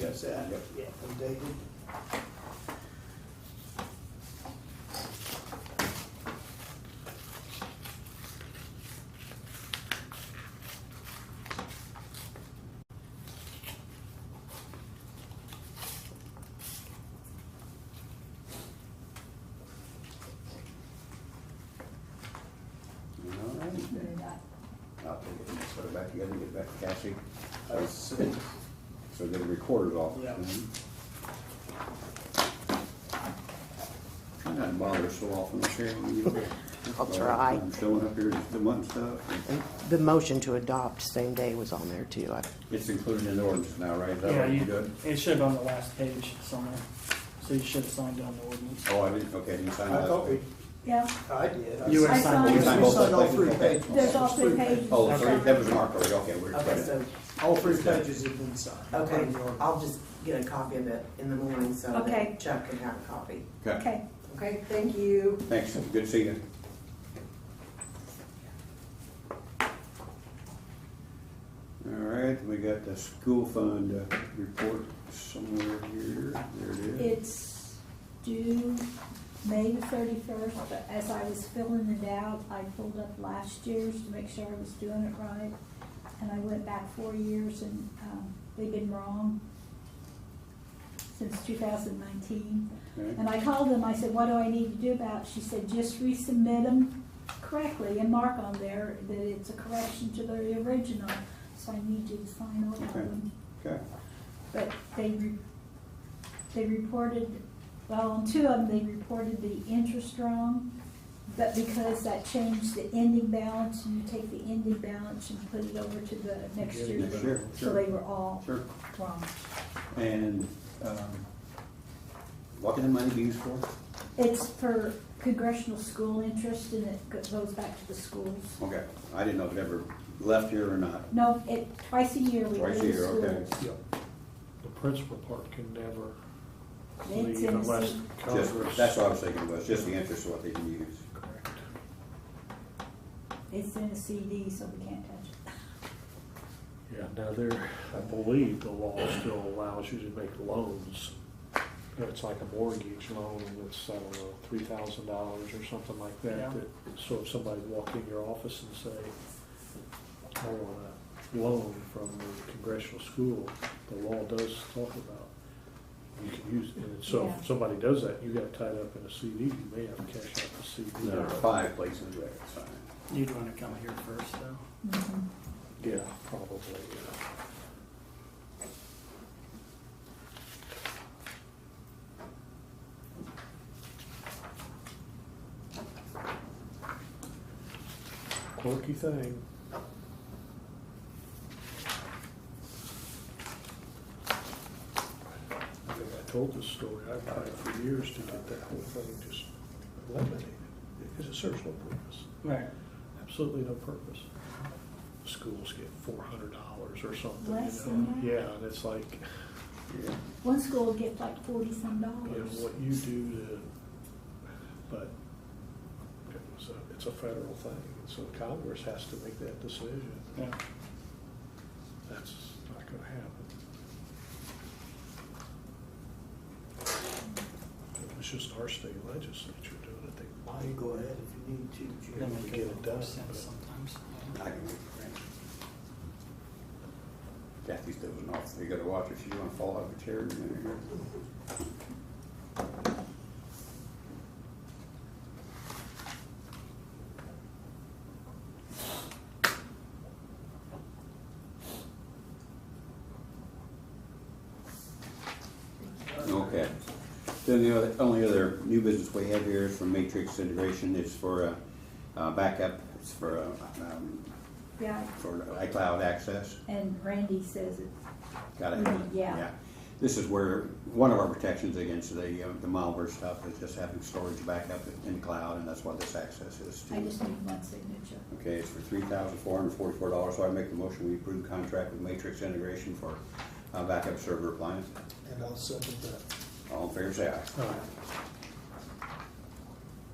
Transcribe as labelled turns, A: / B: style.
A: that's that.
B: Yep.
A: Yeah. From David.
B: All right. I'll take it, and put it back together, and get it back to Cassie.
A: That's it.
B: So get it recorded off.
A: Yeah.
B: Mhm. Try not to bother so often, Sharon. when you- uh,
C: I'll try.
B: I'm Showing up here just to want stuff.
C: And The motion to adopt same day was on there too. I-
B: It's included in the ordinance now, right? Is that
D: Yeah,
B: what you
D: you,
B: did?
D: it should have been on the last page somewhere, so you should have signed on the ordinance.
B: Oh, I didn't, okay, you
A: I
B: signed
A: thought we,
B: that.
E: Yeah,
A: I did. I
D: You
A: signed-
D: were
E: I
D: signed.
B: You
A: We
D: on
B: signed
D: it.
B: both
A: signed all
B: those
A: three
B: things, okay.
A: pages.
E: there's all three pages.
B: Oh, sorry, that was an article, okay, we're
A: I think
B: credit.
A: so. All three pages have been signed.
F: Okay,
A: According to your-
F: I'll just get a copy of it in the morning so
E: Okay.
F: that Chuck can have a copy.
B: Okay,
E: okay.
F: Okay, thank you.
B: thanks, good seeing you. All right, we got the school fund uh, report somewhere here, there it is.
E: It's due May the thirty-first, but as I was filling it out, I pulled up last year's to make sure I was doing it right. And I went back four years and, um, we've been wrong since two thousand nineteen.
B: Okay.
E: And I called them, I said, what do I need to do about it? She said, just resubmit them correctly and mark on there that it's a correction to the original. So I need you to sign all of
B: Okay.
E: them.
B: Okay,
E: But they, re- they reported, well, on two of them, they reported the interest wrong, but because that changed the ending balance, and you take the ending balance and put it over to the next year.
B: next year,
E: So they
B: sure,
E: were all
B: sure.
E: wrong.
B: And, um, what can the money be used for?
E: It's for congressional school interest, and it go- goes back to the schools.
B: Okay, I didn't know if it ever left here or not.
E: No, it, twice a year we go to
B: Twice a
E: schools.
B: year, okay.
G: The principal part can never
E: It's
G: leave
E: in the
G: unless
E: seat.
B: Just,
G: Congress.
B: that's what I was thinking, was just the interest, what they can use.
G: Correct.
E: It's in a CD, so we can't touch it.
G: Yeah, now there, I believe the law still allows you to make loans. It's like a mortgage loan that's, I don't know, three thousand dollars or something like
D: Yeah.
G: that. that- So if somebody walked in your office and say, I want a loan from the congressional school, the law does talk about, you can use, it. and so
E: Yeah.
G: if somebody does that, you got tied up in a CD, you may have to cash out the CD.
B: There are five places where it's signed.
D: You'd wanna come here first, though.
E: Mhm.
G: Yeah, probably, yeah. Quirky thing. I think I told this story, I've tried for years to get that whole thing just eliminated, because it serves no purpose
D: Right.
G: absolutely no purpose. Schools get four hundred dollars or something,
E: Less
G: you
E: than
G: know?
E: that?
G: Yeah, and it's like,
B: Yeah.
E: One school will get like forty-some
G: you know,
E: dollars.
G: what you do to, but it was a, it's a federal thing, and so Congress has to make that decision.
D: Yeah.
G: That's not gonna happen. It was just our state legislature doing it, they
A: You
G: lied.
A: go ahead if you need to,
D: They
A: Jim.
D: make
G: Get
D: a
G: it
D: lot more
G: done,
D: sense
G: but-
D: sometimes.
B: I can make a friend. Kathy's dozing off. You gotta watch her. She's gonna fall out of a chair. in a minute here. Okay. Then the other- only other new business we have here is from Matrix Integration. It's for uh, uh, backup. It's for uh, um,
E: Yeah,
B: for iCloud access.
E: and Randy says it's
B: Got it?
E: Mhm, yeah.
B: This is where, one of our protections against the, uh, the malware stuff is just having storage backup in the cloud, and that's what this access is
E: I
B: to.
E: just need one signature.
B: Okay, it's for three thousand four hundred forty-four dollars, so I make the motion, we approve contract with Matrix Integration for uh, backup server appliance.
A: And I'll second that.
B: All in favor, say aye.
G: All right.